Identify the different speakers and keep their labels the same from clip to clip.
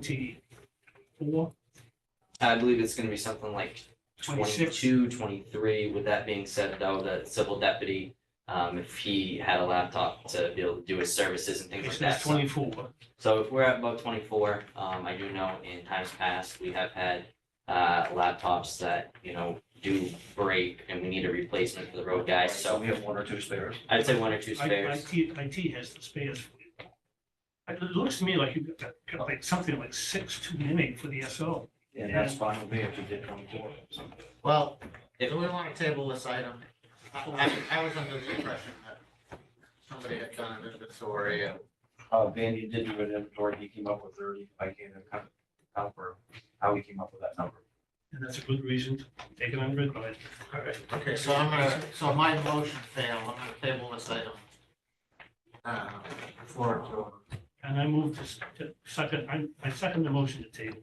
Speaker 1: twenty-four,
Speaker 2: I believe it's gonna be something like
Speaker 1: twenty-six?
Speaker 2: 22, 23. With that being said, though, the civil deputy, um, if he had a laptop to be able to do his services and things
Speaker 1: It
Speaker 2: like
Speaker 1: says
Speaker 2: that. so-
Speaker 1: twenty-four.
Speaker 2: So if we're at about twenty-four, um, I do know in times past, we have had, uh, laptops that, you know, do break and we need a replacement for the road guys, so
Speaker 3: We have one or two spares.
Speaker 2: I'd say one or two
Speaker 1: I-
Speaker 2: spares.
Speaker 1: IT, IT has the spares. for you. It looks to me like you've got got like something like six too many for the SO.
Speaker 3: And that's fine with me if you did twenty-four. so.
Speaker 4: Well,
Speaker 2: If-
Speaker 4: do we want to table this item? I, I I was under the impression that somebody had done an inventory and
Speaker 3: Uh, Vandy did do an inventory, he came up with thirty, I gave him count, count for how he came up with that number.
Speaker 1: And that's a good reason to take it under advisement. All right.
Speaker 4: Okay, so I'm gonna, so my motion failed, I'm gonna table this item. Uh, for, all
Speaker 1: And I move to s- to second, I, I second the motion to table.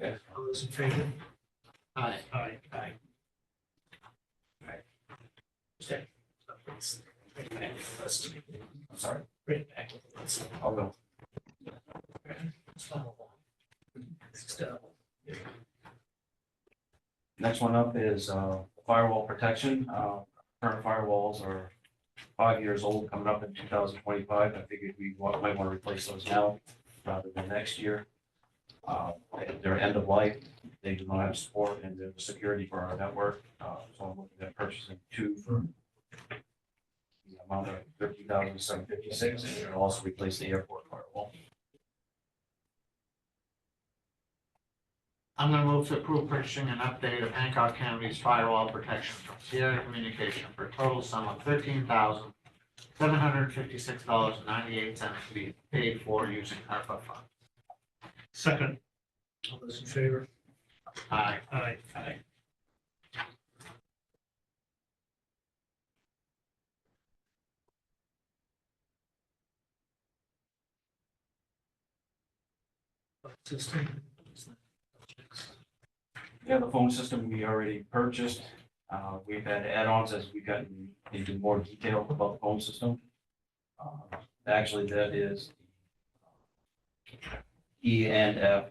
Speaker 3: Yes.
Speaker 1: All those in favor?
Speaker 4: right,
Speaker 1: Aye. Aye.
Speaker 3: I'm sorry,
Speaker 5: Bring it back. Let's-
Speaker 3: I'll go.
Speaker 5: let's follow along. Next up,
Speaker 3: Next one up is uh, firewall protection. Uh, Current firewalls are five years old, coming up in two thousand twenty-five. I figured we wa- might want to replace those now rather than next year. Uh, They're end of life. They do not have support and the security for our network. Uh, So I'm looking at purchasing two for the amount of thirty thousand seven fifty-six and it'll also replace the airport firewall.
Speaker 4: I'm gonna move to approve purchasing an update of Hancock County's firewall protection from Sierra Communication for a total sum of thirteen thousand seven hundred fifty-six dollars and ninety-eight cents to be paid for using ARPA funds.
Speaker 1: Second,
Speaker 5: all those in favor?
Speaker 4: Aye.
Speaker 1: aye. Aye.
Speaker 5: System.
Speaker 3: Yeah, the phone system we already purchased. Uh, we've had add-ons as we've gotten into more detail about the phone system. Uh, Actually, that is E and F.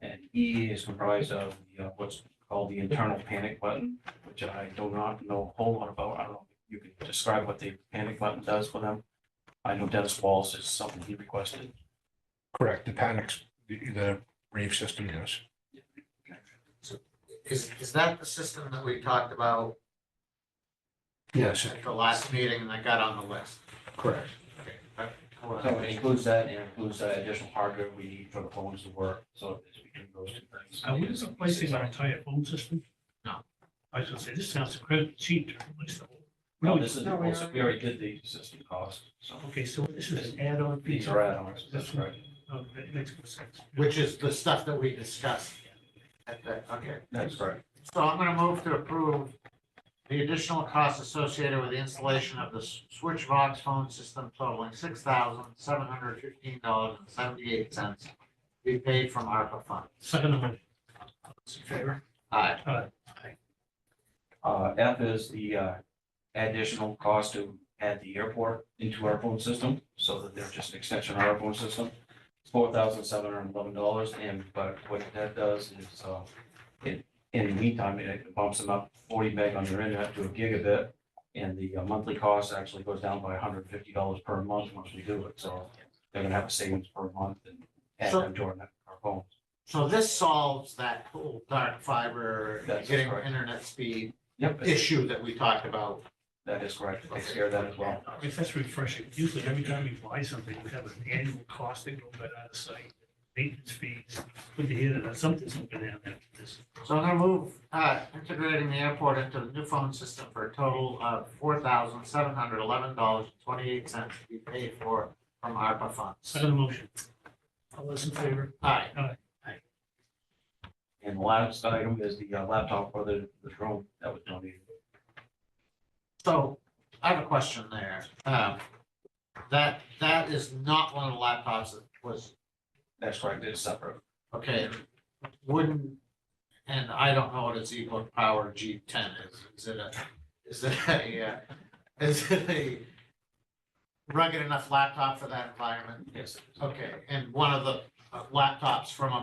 Speaker 3: And E is comprised of the, uh, what's called the internal panic button, which I do not know a whole lot about. I don't know if you can describe what the panic button does for them. I know Dennis Wallace is something he requested.
Speaker 6: Correct, the panics, the, the rave system, yes.
Speaker 4: Is, is that the system that we talked about
Speaker 6: Yes,
Speaker 4: at the last meeting and that got on the list?
Speaker 6: correct.
Speaker 4: Okay, uh, that- I wasn't
Speaker 3: So it includes that and includes that additional hardware we need for the phones to work, so it's between those two things.
Speaker 1: Are we replacing our entire phone system?
Speaker 4: No.
Speaker 1: I was gonna say, this sounds incredibly cheap to replace the whole.
Speaker 3: No, this is,
Speaker 4: No, we are-
Speaker 3: we already did the system cost, so
Speaker 1: Okay, so this is an add-on piece.
Speaker 3: these are add-ons,
Speaker 1: That's
Speaker 3: that's
Speaker 1: right.
Speaker 3: right.
Speaker 1: Oh, that makes more sense.
Speaker 4: Which is the stuff that we discussed at the, okay.
Speaker 3: That's correct.
Speaker 4: So I'm gonna move to approve the additional costs associated with the installation of the S- Switchvox phone system totaling six thousand seven hundred fifteen dollars and seventy-eight cents to be paid from ARPA funds.
Speaker 1: Second amendment.
Speaker 5: All those in favor?
Speaker 4: Aye.
Speaker 3: Uh, F is the, uh, additional cost to add the airport into our phone system, so that they're just an extension of our phone system. Four thousand seven hundred and eleven dollars, and, but what that does is, uh, it, in the meantime, it bumps them up forty meg on their internet to a gigabit. And the uh, monthly cost actually goes down by hundred and fifty dollars per month once we do it, so they're gonna have a savings per month and add
Speaker 4: So-
Speaker 3: them to our, net- our phone.
Speaker 4: So this solves that whole dark fiber,
Speaker 3: That's
Speaker 4: getting
Speaker 3: correct.
Speaker 4: internet speed
Speaker 3: Yep,
Speaker 4: issue that we talked about
Speaker 3: that is correct. It Takes care of that as well.
Speaker 1: I mean, that's refreshing. Usually every time you buy something, you have an annual cost that goes out of sight, maintenance fees, put the head on something's looking at that. This-
Speaker 4: So I'm gonna move, uh, integrating the airport into the new phone system for a total of four thousand seven hundred eleven dollars and twenty-eight cents to be paid for from ARPA funds.
Speaker 1: Second motion.
Speaker 5: All those in favor?
Speaker 4: Aye,
Speaker 3: And the last item is the uh, laptop for the, the drone that was donated.
Speaker 4: so I have a question there. Um, that, that is not one of the laptops that was,
Speaker 3: That's correct, it's separate.
Speaker 4: okay, wouldn't, and I don't know what its equal power G ten is. Is it a, is it a, uh, is it a rugged enough laptop for that environment?
Speaker 3: Yes.
Speaker 4: Okay, and one of the uh, laptops from a